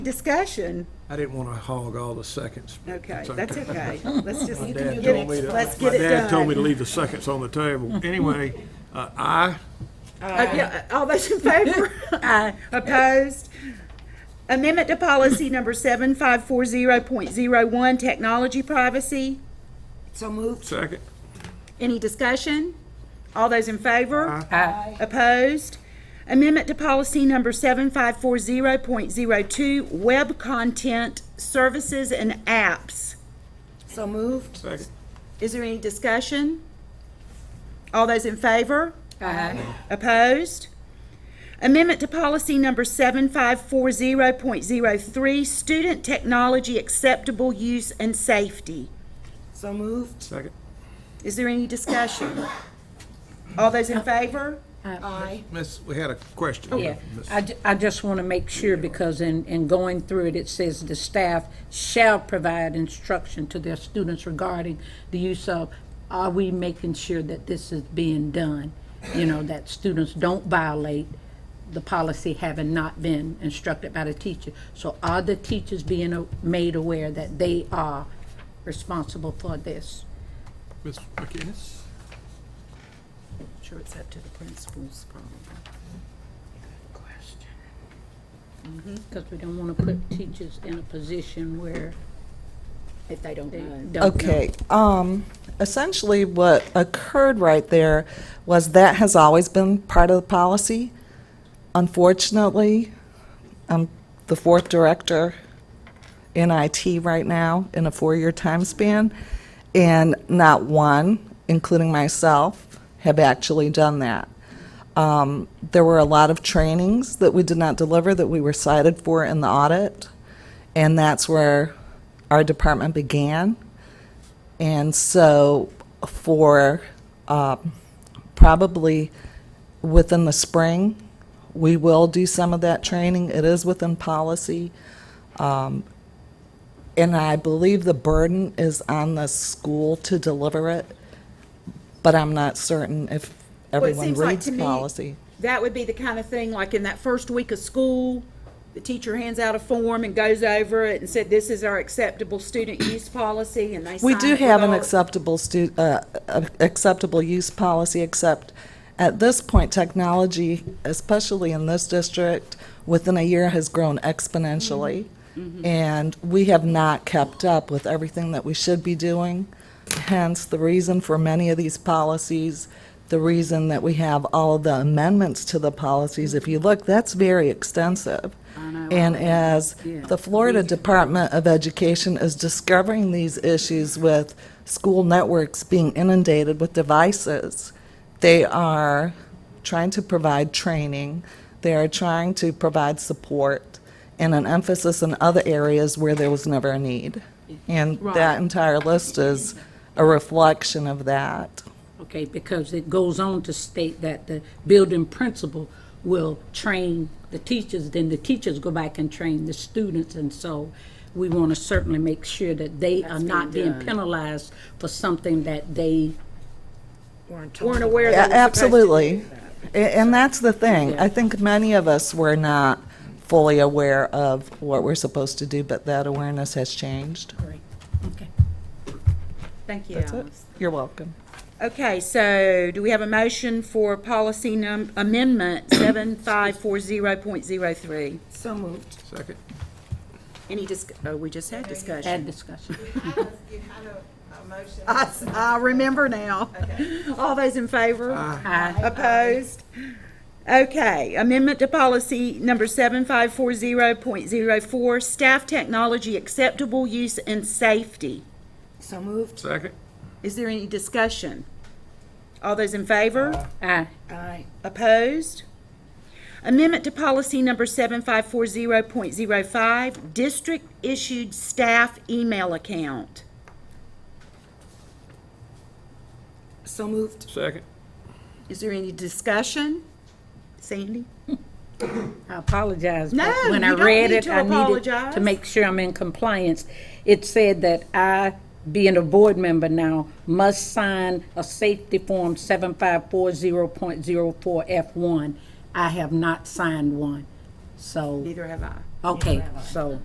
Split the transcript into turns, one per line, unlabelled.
Discussion,
I didn't want to hog all the seconds. but
okay,
it's
that's okay. Let's just,
My
get
dad told me
it-
to-
let's get it
My dad told me to
done.
leave the seconds on the table. Anyway, uh, aye,
Uh, yeah, All those in favor? Aye. Opposed? Amendment to policy number 7540.01, technology privacy.
So moved.
second,
Any discussion? All those in favor?
Aye.
Opposed? Amendment to policy number 7540.02, web content, services, and apps.
So moved.
second,
Is there any discussion? All those in favor?
Aye.
Opposed? Amendment to policy number 7540.03, student technology acceptable use and safety.
So moved.
second.
Is there any discussion? All those in favor?
Aye.
Miss, we had a
Oh,
question.
Yeah,
Miss-
I, ju- I just want to make sure, because in, in going through it, it says the staff shall provide instruction to their students regarding the use of, are we making sure that this is being done? You know, that students don't violate the policy having not been instructed by the teacher. So are the teachers being a- made aware that they are responsible for this?
Miss McInnes?
Sure it's up to the principals probably.
Question.
Because we don't want to put teachers in a position where
If they don't
they
know.
don't know.
Okay, um, essentially what occurred right there was that has always been part of the policy. Unfortunately, I'm the fourth director in IT right now in a four-year time span, and not one, including myself, have actually done that. Um, there were a lot of trainings that we did not deliver that we were cited for in the audit, and that's where our department began. And so, for um, probably within the spring, we will do some of that training. It is within policy. Um, And I believe the burden is on the school to deliver it, but I'm not certain if
Well, it
everyone
seems like
reads
to me
policy.
That would be the kind of thing, like in that first week of school, the teacher hands out a form and goes over it and said, this is our acceptable student use policy, and they sign
We do
it with
have an
all-
acceptable stu, uh, uh, acceptable use policy, except at this point, technology, especially in this district, within a year has grown exponentially. And we have not kept up with everything that we should be doing. Hence, the reason for many of these policies, the reason that we have all of the amendments to the policies. If you look, that's very extensive. And as the Florida Department of Education is discovering these issues with school networks being inundated with devices, they are trying to provide training, they are trying to provide support, and an emphasis in other areas where there was never a need. And that entire list is a reflection of that.
Okay, because it goes on to state that the building principal will train the teachers, then the teachers go back and train the students, and so we want to certainly make sure that they are not being penalized for something that they,
Weren't aware
Yeah,
that we're supposed to
Absolutely. A- And that's the thing. I think many of us were not fully aware of what we're supposed to do, but that awareness has changed.
okay.
Thank you,
That's it.
Alice.
You're welcome.
Okay, so do we have a motion for policy num, amendment 7540.03?
So moved.
Second.
Any dis, oh, we just had discussion.
Add discussion.
You had a, a motion.
I, s- I remember now. All those in favor?
Aye.
Opposed? Okay, amendment to policy number 7540.04, staff technology acceptable use and safety.
So moved.
Second,
Is there any discussion? All those in favor?
Aye.
Aye.
Opposed? Amendment to policy number 7540.05, district-issued staff email account.
So moved.
second,
Is there any discussion? Sandy?
I apologize.
No,
but when I
you don't
read
need
it,
to
I needed
apologize.
To make sure I'm in compliance, it said that I, being a board member now, must sign a safety form seven five four zero point zero four F one. I have not signed one, so
Neither have I.
Okay, so.